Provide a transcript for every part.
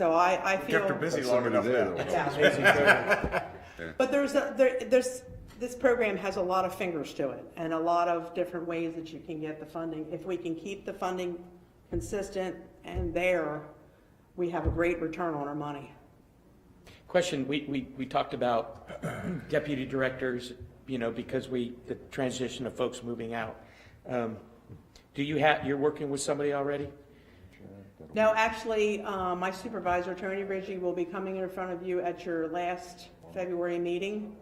So I, I Kept her feel, busy That's long somebody enough there now. that Yeah. wants- but there's, a- there, there's, this program has a lot of fingers to it and a lot of different ways that you can get the funding. If we can keep the funding consistent and there, we have a great return on our money. Question, we, we, we talked about deputy directors, you know, because we, the transition of folks moving out. Um, Do you have, you're working with somebody already? No, actually, uh, my supervisor, Tony Ritchie, will be coming in front of you at your last February meeting.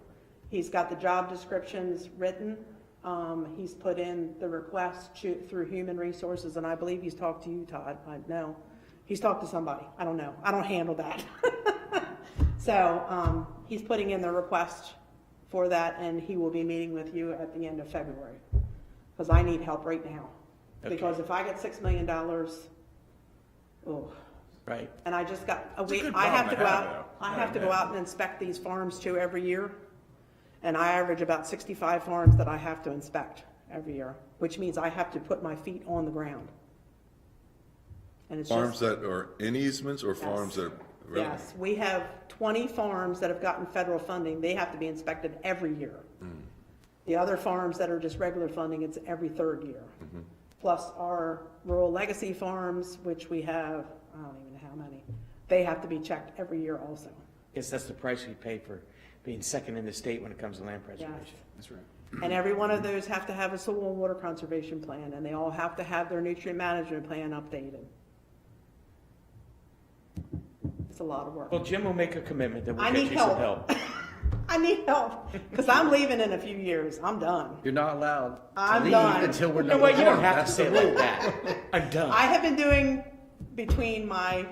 He's got the job descriptions written. Um, He's put in the request to- through Human Resources, and I believe he's talked to you, Todd. I know. He's talked to somebody. I don't know. I don't handle that. So um, he's putting in the request for that, and he will be meeting with you at the end of February. Because I need help right now. Okay. Because if I get $6 million, oh. Right, And I just got, a week. good I have to problem go to have, out, though. I have to go out and inspect these farms too every year. And I average about sixty-five farms that I have to inspect every year, which means I have to put my feet on the ground. And it's Farms just, that are in easements or farms that are. yes, we have twenty farms that have gotten federal funding, they have to be inspected every year. The other farms that are just regular funding, it's every third year. Plus our rural legacy farms, which we have, I don't even know how many, they have to be checked every year also. guess that's the price we pay for being second in the state when it comes to land preservation. That's right. And every one of those have to have a soil and water conservation plan, and they all have to have their nutrient management plan updated. It's a lot of work. Well, Jim will make a commitment that I we'll get need you some help. help. I need help, because I'm leaving in a few years, I'm done. You're not allowed to I'm leave done. until we're You know done. what, you don't have to say it like that. I'm I done. have been doing between my,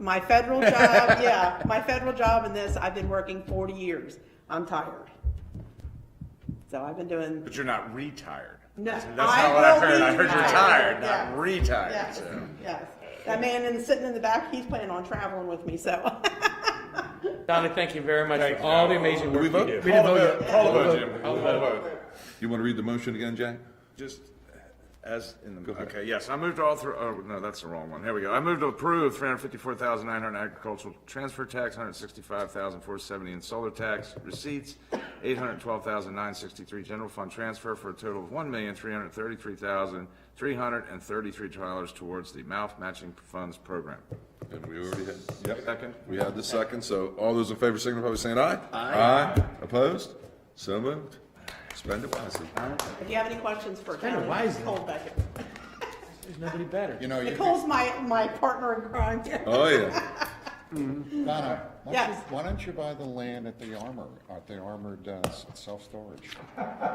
my federal job, yeah, my federal job and this, I've been working forty years. I'm tired. So I've been doing, But you're not retired. No, That's not I what I will heard. be I heard you're retired. tired, Yeah. not retired. yes, so. yes. That man in, sitting in the back, he's planning on traveling with me, so. Donna, thank you very much Thank for you. all the amazing work we you vote? do. We Call the didn't vote vote, yet. call the vote, Jim. Call the vote. You want to read the motion again, Jack? Just as in the, ahead. okay, yes, I moved all through, oh, no, that's the wrong one. Here we go. I moved to approve three hundred fifty-four thousand nine hundred agricultural transfer tax, hundred sixty-five thousand four seventy in solar tax receipts, eight hundred twelve thousand nine sixty-three general fund transfer for a total of one million three hundred thirty-three thousand three hundred and thirty-three dollars towards the mouth matching funds program. And we already had, yep. Second? We had the second, so all those in favor signify by saying aye. Aye. Opposed? So moved. Spend it wisely. If you have any questions for kinda Kevin, wise, Nicole's back here. There's nobody better. You know, you, Nicole's my, my partner in crime here. Oh, yeah. Donna, why don't you, Yes. why don't you buy the land at the armor, at the armored uh, s- self-storage?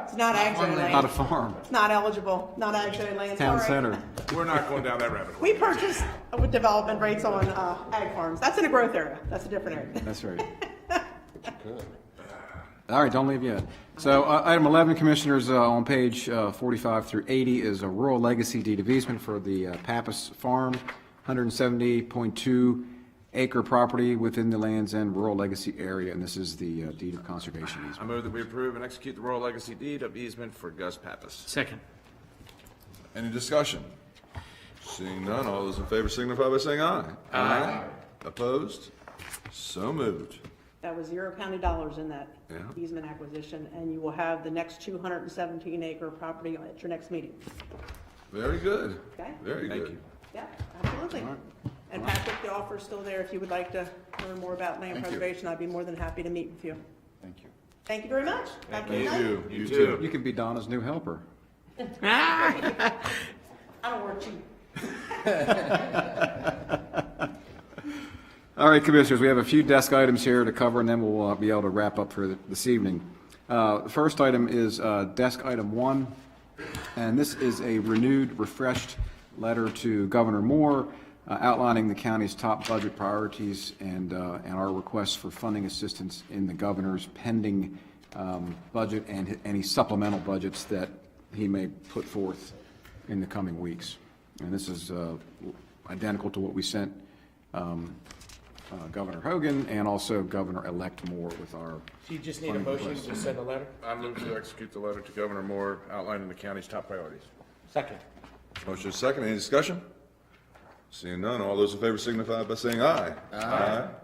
It's not ag zone Not a land. farm, It's not eligible, not ag zone land, town sorry. center. We're not going down that rabbit hole. We purchased uh, with development rates on uh, ag farms. That's in a growth area. That's a different area. That's right. All right, don't leave yet. So uh, item 11, Commissioners, uh, on page uh, 45 through 80 is a rural legacy deed of easement for the uh, Pappas Farm, 170.2 acre property within the Land's End Rural Legacy Area, and this is the uh, deed of conservation I easement. move that we approve and execute the royal legacy deed of easement for Gus Pappas. Second. Any discussion? Seeing none, all those in favor signify by saying aye. Aye. Opposed? So moved. That was zero county dollars in that Yeah. easement acquisition, and you will have the next 217 acre property at your next meeting. Very good. Okay. Very Thank good. you. Yeah, absolutely. And Patrick, the offer's still there. If you would like to learn more about land Thank you. preservation, I'd be more than happy to meet with you. Thank you. Thank you very much. Have a good night. You, You too. You can be Donna's new helper. I don't work cheap. All right, Commissioners, we have a few desk items here to cover, and then we'll uh, be able to wrap up for th- this evening. Uh, The first item is uh, Desk Item 1, and this is a renewed, refreshed letter to Governor Moore uh, outlining the county's top budget priorities and uh, and our requests for funding assistance in the governor's pending um, budget and hi- any supplemental budgets that he may put forth in the coming weeks. And this is uh, identical to what we sent um, uh, Governor Hogan and also Governor-elect Moore with our, Do you just need a motion to send a letter? I move to execute the letter to Governor Moore outlining the county's top priorities. Second. Motion is second, any discussion? Seeing none, all those in favor signify by saying aye. Aye.